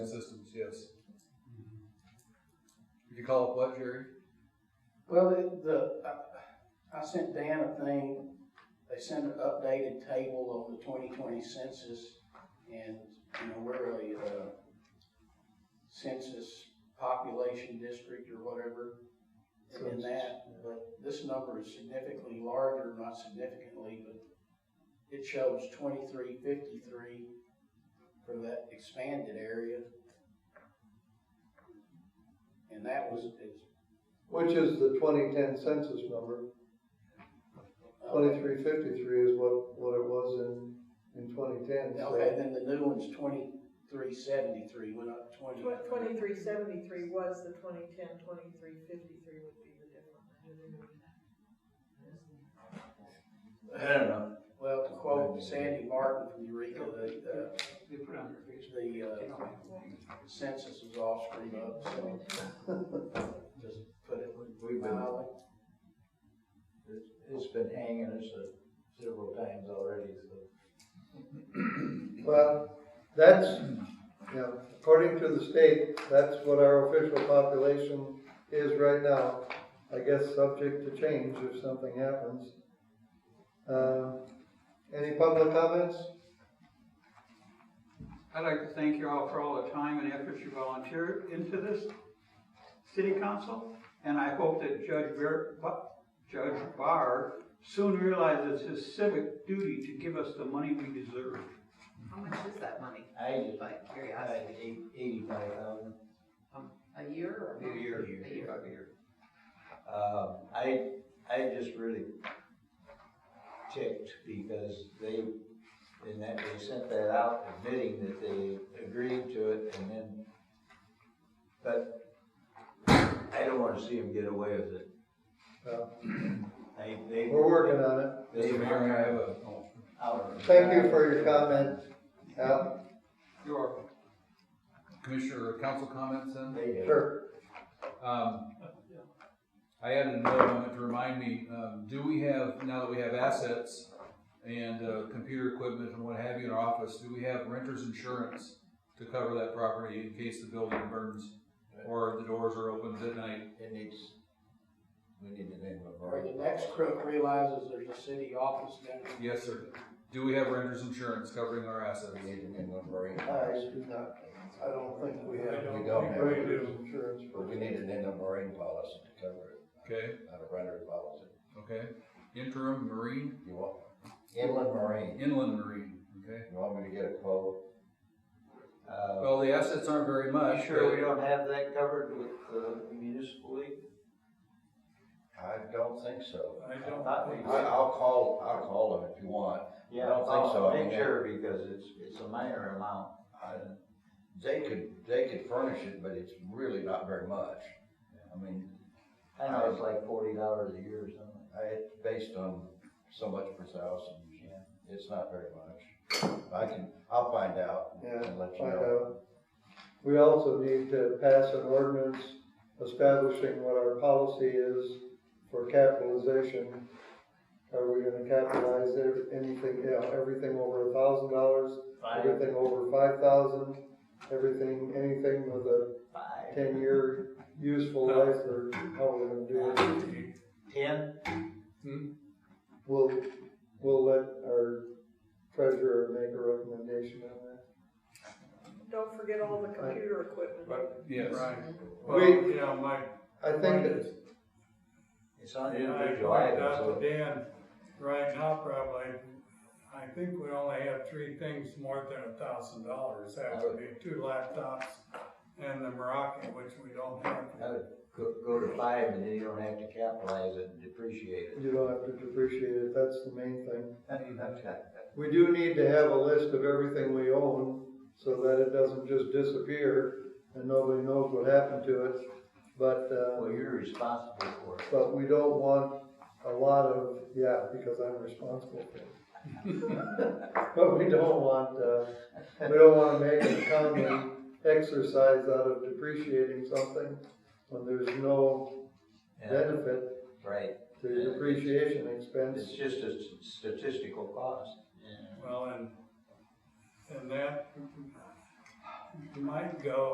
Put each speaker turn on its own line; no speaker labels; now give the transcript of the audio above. Systems, yes. Did you call it what, Jerry?
Well, the, the, I- I sent Dan a thing, they sent an updated table on the twenty twenty census, and, you know, we're a, uh, census population district or whatever, and in that, but this number is significantly larger, not significantly, but it shows twenty-three fifty-three for that expanded area. And that was, is,
Which is the twenty-ten census number,
uh,
twenty-three fifty-three is what, what it was in, in twenty-ten.
Okay, then the new one's twenty-three seventy-three, went up twenty.
Twenty-three seventy-three was the twenty-ten, twenty-three fifty-three would be the difference.
I don't know.
Well, to quote Sandy Martin from Eureka, the,
They put on their
uh,
face.
the
They
uh,
don't like it.
census was all screwed up, so just put it
We've been,
mildly.
it's been hanging us uh, several times already, so.
Well, that's, yeah, according to the state, that's what our official population is right now. I guess subject to change if something happens. Uh, Any public comments?
I'd like to thank you all for all the time and effort you volunteered into this city council, and I hope that Judge Bear, Bu- Judge Barr soon realizes his civic duty to give us the money we deserve.
How much is that money,
I just,
by
I
curiosity?
eighty-five thousand
A year or
a
a month?
year.
A year.
a year. Um, I, I just really ticked because they, in that, they sent that out admitting that they agreed to it and then, but I don't wanna see them get away with it.
Well,
They, they.
We're working on it.
They
Mr. Mayor, I have a,
out.
Thank you for your comment. Al.
You are
Commissioner, or council comments then?
They did.
Sure.
Um, I added another one to remind me, um, do we have, now that we have assets and, uh, computer equipment and what have you in our office, do we have renter's insurance to cover that property in case the building burns? Or the doors are opened at night?
It needs, we need the name of
Or
our.
the next crook realizes there's a city office down
Yes, sir. Do we have renter's insurance covering our assets?
We need the name of our.
Uh,
I do not, I don't think we have.
We don't have it.
renter's Insurance.
But we need an inter-marine policy to cover
Okay,
it, not a rental policy.
okay. Interim marine,
You want, inland marine,
inland marine, okay?
you want me to get a quote? Uh,
Well, the assets aren't very much,
sure
but-
we don't have that covered with the municipal league?
I don't think so.
I don't
I,
think so.
I'll call, I'll call them if you want.
Yeah,
I don't think so. I
I'll
mean,
Make sure, because it's, it's a minor amount.
I, they could, they could furnish it, but it's really not very much. I mean,
I know it's like forty dollars a year or something.
I, it's based on so much per thousand, it's not very much. I can, I'll find out
Yeah,
and let you
find
know.
out. We also need to pass an ordinance establishing what our policy is for capitalization. Are we gonna capitalize ev- anything, you know, everything over a thousand dollars, everything over five thousand, everything, anything with a
Five.
ten-year useful life, or how we're gonna do it?
Ten?
Hmm?
We'll, we'll let our treasurer make a recommendation on that.
Don't forget all the computer equipment.
yes.
Well,
you know, my,
I think that
It's on
I
individual items,
pointed out
so
to Dan, right now probably, I think we only have three things more than a thousand dollars. That would be two laptops and the Moroccan, which we don't have.
I would go, go to five and then you don't have to capitalize it and depreciate it.
you don't have to depreciate it, that's the main thing.
Well,
We do need to have a list of everything we own, so that it doesn't just disappear and nobody knows what happened to it. But, uh,
you're responsible for it.
but we don't want a lot of, yeah, because I'm responsible for it. But we don't want, uh, we don't wanna make an accounting exercise out of depreciating something when there's no
Yeah,
benefit
Right,
to depreciation expense.
it's just a s- statistical cost.
Well, and, and that, you might go